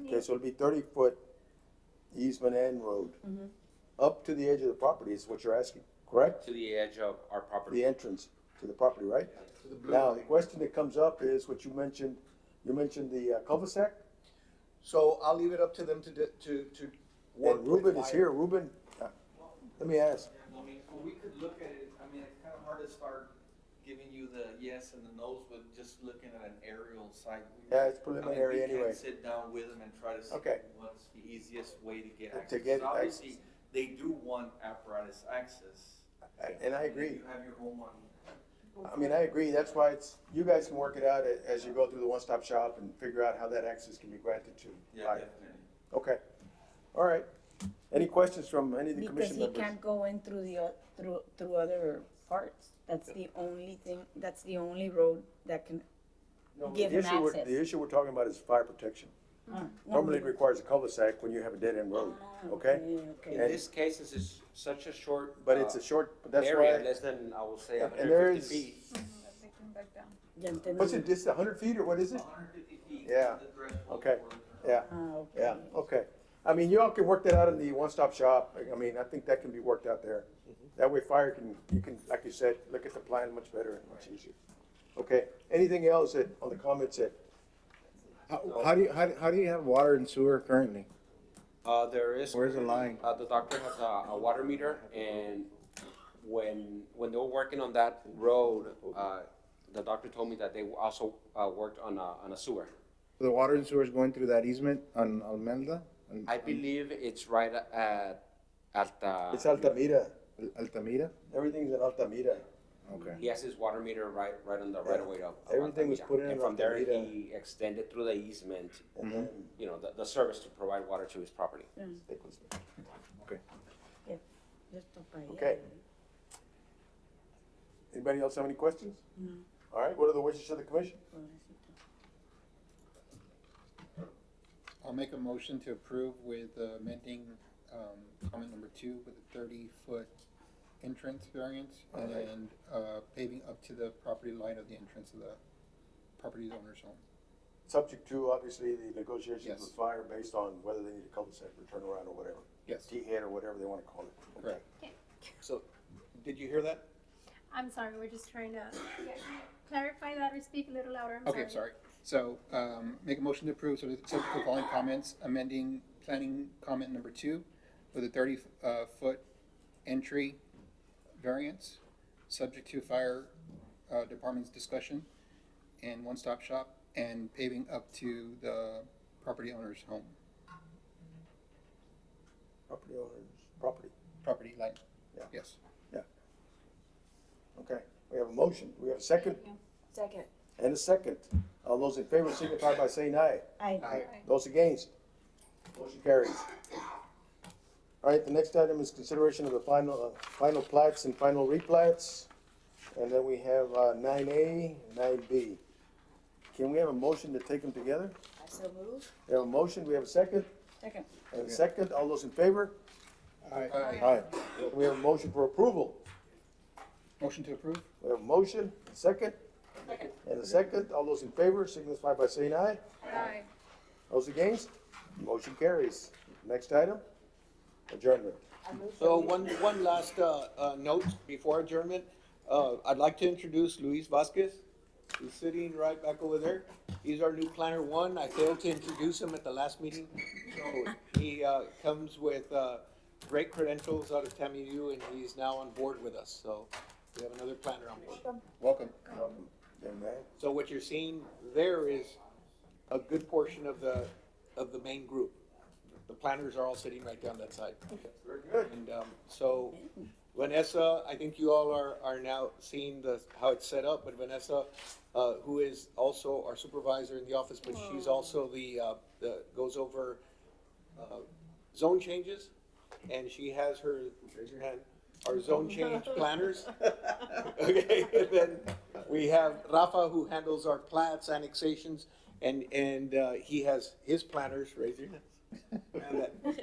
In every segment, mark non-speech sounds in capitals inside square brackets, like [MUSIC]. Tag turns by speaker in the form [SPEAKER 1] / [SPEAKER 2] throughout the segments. [SPEAKER 1] Okay, so it'll be thirty foot easement and road. Up to the edge of the property is what you're asking, correct?
[SPEAKER 2] to the edge of our property.
[SPEAKER 1] The entrance to the property, right? Now, the question that comes up is what you mentioned, you mentioned the uh, cul-de-sac?
[SPEAKER 3] So I'll leave it up to them to, di- to, to work
[SPEAKER 1] And
[SPEAKER 3] with
[SPEAKER 1] Ruben is
[SPEAKER 3] my-
[SPEAKER 1] here, Ruben, uh, let me ask,
[SPEAKER 4] I mean, we could look at it, I mean, it's kind of hard to start giving you the yes and the no's with just looking at an aerial site.
[SPEAKER 1] Yeah, it's
[SPEAKER 4] I mean,
[SPEAKER 1] preliminary
[SPEAKER 4] we can't
[SPEAKER 1] anyway.
[SPEAKER 4] Sit down with them and try to see
[SPEAKER 1] Okay.
[SPEAKER 4] what's the easiest way to get
[SPEAKER 1] To
[SPEAKER 4] access.
[SPEAKER 1] get
[SPEAKER 4] Obviously, they do want apparatus access.
[SPEAKER 1] I- and I
[SPEAKER 4] mean,
[SPEAKER 1] agree.
[SPEAKER 4] You have your home on,
[SPEAKER 1] I mean, I agree, that's why it's, you guys can work it out a- as you go through the one-stop shop and figure out how that access can be granted to.
[SPEAKER 4] yeah,
[SPEAKER 1] Right.
[SPEAKER 4] definitely.
[SPEAKER 1] Okay, all right. Any questions from any of the
[SPEAKER 5] Because
[SPEAKER 1] commission
[SPEAKER 5] he
[SPEAKER 1] members?
[SPEAKER 5] can't go in through the, o- through, through other parts. That's the only thing, that's the only road that can,
[SPEAKER 1] No,
[SPEAKER 5] give
[SPEAKER 1] the
[SPEAKER 5] him
[SPEAKER 1] issue we're-
[SPEAKER 5] access.
[SPEAKER 1] The issue we're talking about is fire protection. Normally it requires a cul-de-sac when you have a dead-end
[SPEAKER 5] Oh,
[SPEAKER 1] road, okay?
[SPEAKER 2] In
[SPEAKER 1] And-
[SPEAKER 2] this case, this is such a short.
[SPEAKER 1] But it's
[SPEAKER 2] uh,
[SPEAKER 1] a short, that's
[SPEAKER 2] Area,
[SPEAKER 1] why,
[SPEAKER 2] less than, I will say,
[SPEAKER 1] And- and
[SPEAKER 2] hundred
[SPEAKER 1] there
[SPEAKER 2] and
[SPEAKER 1] is-
[SPEAKER 2] fifty feet.
[SPEAKER 6] Mm-hmm.
[SPEAKER 7] They come back down.
[SPEAKER 5] Ya entendí.
[SPEAKER 1] what's it, just hundred feet or what is it?
[SPEAKER 4] 150 feet.
[SPEAKER 1] Yeah.
[SPEAKER 4] is the threshold
[SPEAKER 1] Okay.
[SPEAKER 4] for-
[SPEAKER 1] Yeah,
[SPEAKER 5] Ah, okay.
[SPEAKER 1] yeah, okay. I mean, y'all can work that out in the one-stop shop, I mean, I think that can be worked out there. That way fire can, you can, like you said, look at the plan much better and much easier. Okay, anything else that, on the comments that,
[SPEAKER 8] How, how do you, how, do- how do you have water and sewer currently?
[SPEAKER 2] Uh, there is.
[SPEAKER 8] Where's the line?
[SPEAKER 2] Uh, the doctor has a, a water meter and when, when they were working on that road, uh, the doctor told me that they also, uh, worked on a, on a sewer.
[SPEAKER 8] The water and sewer is going through that easement on Almelda? on-
[SPEAKER 2] I believe it's right at, at uh,
[SPEAKER 1] it's
[SPEAKER 2] the,
[SPEAKER 1] Altamira,
[SPEAKER 8] on Altamira?
[SPEAKER 1] everything's in Altamira.
[SPEAKER 8] Okay.
[SPEAKER 2] he has his water meter right, right on the right of way of. of
[SPEAKER 1] Everything was
[SPEAKER 2] Altamira.
[SPEAKER 1] put in
[SPEAKER 2] And from there,
[SPEAKER 1] Altamira. Mm-hmm.
[SPEAKER 2] he extended through the easement,
[SPEAKER 1] And then
[SPEAKER 2] you know, the, the service to provide water to his property.
[SPEAKER 1] it was-
[SPEAKER 5] Esto pa' allá.
[SPEAKER 1] Okay. Anybody else have any questions? All right, what are the wishes of the commission?
[SPEAKER 9] I'll make a motion to approve with uh, amending, um, comment number two with a thirty-foot entrance variance
[SPEAKER 1] Alright.
[SPEAKER 9] and, uh, paving up to the property line of the entrance of the property owner's home.
[SPEAKER 1] Subject to, obviously, the negotiations
[SPEAKER 9] Yes.
[SPEAKER 1] with fire based on whether they need a cul-de-sac or turnaround or whatever.
[SPEAKER 9] Yes,
[SPEAKER 1] T-head or whatever they wanna call it. Okay.
[SPEAKER 9] correct.
[SPEAKER 3] So, did you hear that?
[SPEAKER 6] I'm sorry, we're just trying to clarify that or speak a little louder. I'm
[SPEAKER 9] Okay, sorry. So, um, make a motion to approve, so it's subject to the following comments, amending planning comment number two with a thirty, uh, foot entry variance, subject to fire, uh, department's discussion, and one-stop shop, and paving up to the property owner's home,
[SPEAKER 1] Property owners, property,
[SPEAKER 9] property line.
[SPEAKER 1] Yeah.
[SPEAKER 9] Yes.
[SPEAKER 1] okay. We have a motion, we have a second
[SPEAKER 5] Second.
[SPEAKER 1] and a second. All those in favor signify by saying aye.
[SPEAKER 5] Ay,
[SPEAKER 1] Those against? Motion carries. All right, the next item is consideration of the final, uh, final plats and final replats. And then we have, uh, nine A, nine B. Can we have a motion to take them together?
[SPEAKER 5] I so move.
[SPEAKER 1] We have a motion, we have a second,
[SPEAKER 5] Second.
[SPEAKER 1] and a second, all those in favor?
[SPEAKER 9] Aye.
[SPEAKER 1] Aye. We have a motion for approval.
[SPEAKER 9] Motion to approve?
[SPEAKER 1] We have a motion, a second, and a second, all those in favor signify by saying aye.
[SPEAKER 7] Aye.
[SPEAKER 5] [LAUGHS]
[SPEAKER 1] Those against? Motion carries. Next item, adjournment.
[SPEAKER 3] So one, one last, uh, uh, note before adjournment. Uh, I'd like to introduce Luis Vasquez. He's sitting right back over there. He's our new planner one. I failed to introduce him at the last meeting. So he, uh, comes with, uh, great credentials out of TAMU and he's now on board with us. So we have another planner on board.
[SPEAKER 9] Welcome.
[SPEAKER 1] Then that-
[SPEAKER 3] So what you're seeing there is a good portion of the, of the main group. The planners are all sitting right down that side.
[SPEAKER 1] Very good.
[SPEAKER 3] And um, so Vanessa, I think you all are, are now seeing the, how it's set up, but Vanessa, uh, who is also our supervisor in the office, but she's also the, uh, the, goes over uh, zone changes, and she has her, raise your hand, our zone change planners. Okay, and then we have Rafa, who handles our plats, annexations, and, and uh, he has his planners, raise your hand.
[SPEAKER 6] sorry.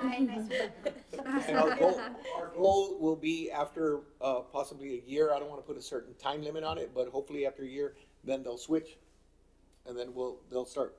[SPEAKER 6] Hi, nice to meet you.
[SPEAKER 3] [LAUGHS] And our goal, our goal will be after uh, possibly a year, I don't want to put a certain time limit on it, but hopefully after a year, then they'll switch. And then we'll, they'll start